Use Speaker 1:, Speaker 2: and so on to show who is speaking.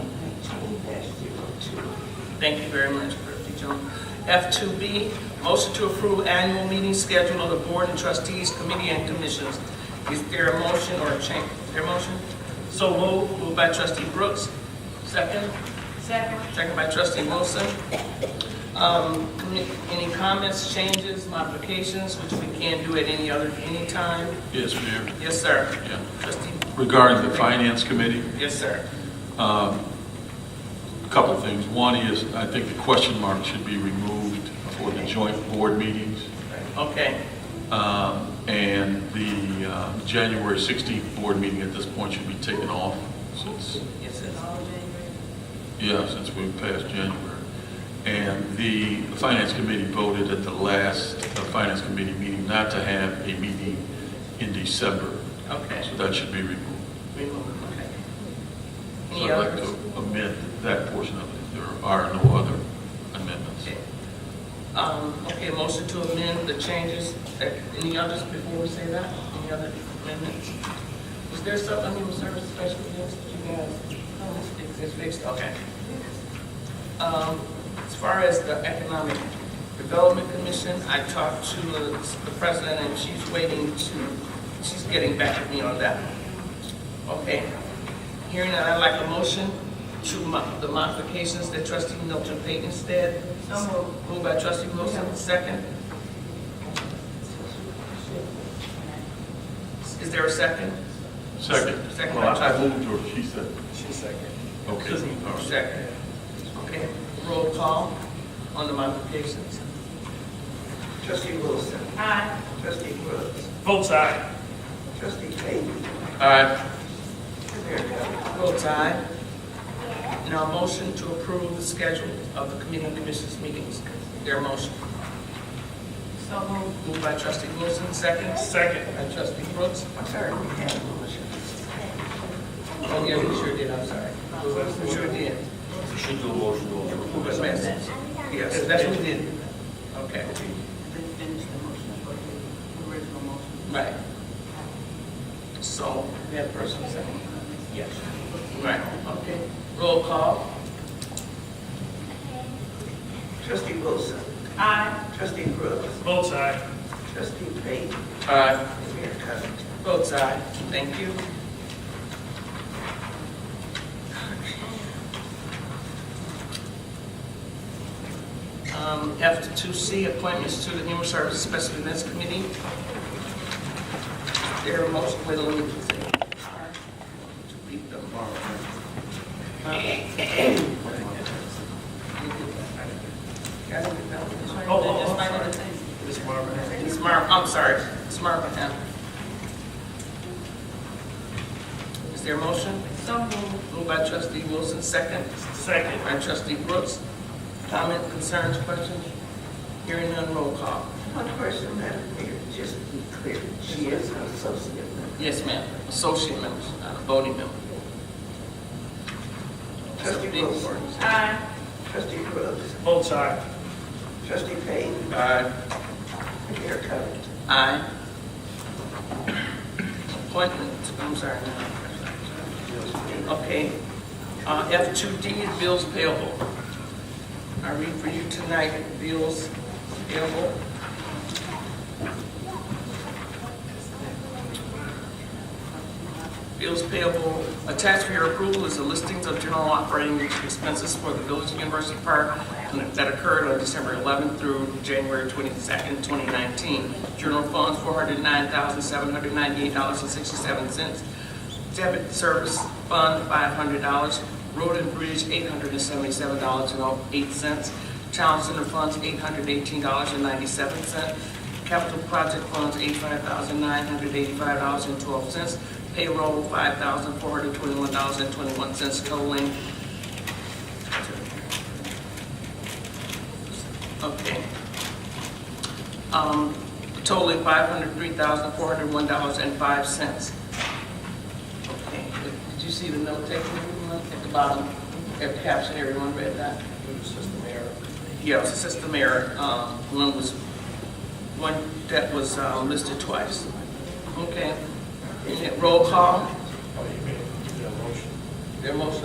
Speaker 1: Thank you very much, Trustee Jones. F2B, motion to approve annual meeting schedule of the Board and Trustees Committee and Commissions. Is there a motion or a change? Is there a motion? So moved, moved by trustee Brooks. Second?
Speaker 2: Second.
Speaker 1: Second by trustee Wilson. Um, commi- Any comments, changes, modifications, which we can do at any other, any time?
Speaker 3: Yes, Mayor.
Speaker 1: Yes, sir.
Speaker 3: Yeah.
Speaker 1: Trustee,
Speaker 3: Regarding the Finance Committee,
Speaker 1: yes, sir.
Speaker 3: a couple of things. One is, I think the question mark should be removed for the joint board meetings.
Speaker 1: Okay,
Speaker 3: Um, And the uh, January 16th board meeting at this point should be taken off since,
Speaker 1: yes, sir.
Speaker 3: yeah, since we passed January. And the Finance Committee voted at the last uh, Finance Committee meeting not to have a meeting in December.
Speaker 1: Okay.
Speaker 3: So that should be removed.
Speaker 1: Remove, okay.
Speaker 3: So
Speaker 1: Any
Speaker 3: I'd like
Speaker 1: others?
Speaker 3: to amend that portion of it. There are no other amendments.
Speaker 1: Okay. Um, okay, motion to amend the changes, Uh, any others before we say that? Any other amendments? Was there something in the service special needs that you guys, no, it's- it's, it's fixed, okay. Um, as far as the Economic Development Commission, I talked to the the president and she's waiting to, she's getting back with me on that. Okay, hearing that, I'd like a motion to mo- the modifications that trustee Milton Payton said.
Speaker 2: So moved.
Speaker 1: Moved by trustee Wilson, second. Is there a second?
Speaker 3: Second.
Speaker 1: Second.
Speaker 3: Well, I I moved or she said.
Speaker 1: She second.
Speaker 3: Okay. all right.
Speaker 1: Second. Okay, roll call on the modifications.
Speaker 4: Trustee Wilson.
Speaker 2: Aye.
Speaker 4: Trustee Brooks.
Speaker 5: Votes aye.
Speaker 4: Trustee Payton.
Speaker 3: Aye.
Speaker 4: Mayor Della.
Speaker 1: Votes aye. Now, motion to approve the schedule of the committee and commissions meetings. Their motion.
Speaker 2: So moved.
Speaker 1: Moved by trustee Wilson, second.
Speaker 5: Second.
Speaker 1: By trustee Brooks.
Speaker 4: I'm sorry, we had a motion.
Speaker 1: Oh, yeah, we sure did, I'm sorry. We sure did.
Speaker 6: You should do a motion to
Speaker 1: Who
Speaker 6: approve
Speaker 1: was
Speaker 6: as
Speaker 1: last?
Speaker 6: amended.
Speaker 1: Yes, that's what we did. Okay,
Speaker 2: Then finish the motion for the original motion.
Speaker 1: right. So, we have first and second.
Speaker 6: Yes.
Speaker 1: Right, okay. Roll call.
Speaker 4: Trustee Wilson.
Speaker 2: Aye.
Speaker 4: Trustee Brooks.
Speaker 5: Votes aye.
Speaker 4: Trustee Payton.
Speaker 1: Aye.
Speaker 4: Mayor Della.
Speaker 1: Votes aye, Uh, thank you. Um, F to two C, appointments to the Human Services Special Events Committee. There are most, wait a minute, please. To read them all. Guys, I'm
Speaker 5: Oh, oh, oh,
Speaker 1: gonna-
Speaker 5: sorry. Ms. Marvin.
Speaker 1: it's Marv, I'm sorry, it's Marvin. Is there a motion?
Speaker 2: So moved.
Speaker 1: Moved by trustee Wilson, second
Speaker 5: Second.
Speaker 1: by trustee Brooks. Comment, concerns, questions? Hearing none, roll call.
Speaker 4: One person, Madam Mayor, just to be clear, she is an associate member.
Speaker 1: Yes, ma'am, associate members, not a voting member. That's a
Speaker 4: Trustee
Speaker 1: big
Speaker 4: Wilson.
Speaker 1: word.
Speaker 2: Aye.
Speaker 4: Trustee Brooks.
Speaker 5: Votes aye.
Speaker 4: Trustee Payton.
Speaker 1: Aye.
Speaker 4: Mayor Della.
Speaker 1: Aye. Appointment, I'm sorry. no. Okay. Uh, F two D is bills payable. I read for you tonight, bills payable. Bills payable, attached for your approval is the listings of general operating expenses for the Village of University Park that occurred on December 11th through January 22nd, 2019. General funds, $409,798.67. Debit service fund, $500. Road and bridge, $877.08. Town center funds, $818.97. Capital project funds, eighty-five thousand nine hundred eighty-five dollars and twelve cents. Payroll, five thousand four hundred twenty-one dollars and twenty-one cents totaling. Okay. Um, totaling five hundred three thousand four hundred one dollars and five cents. Okay, did you see the note taken everyone, at the bottom? Their caption, everyone read that? Yeah, it was assistant mayor, um, one was, one that was um, listed twice. Okay. Roll call. Their motion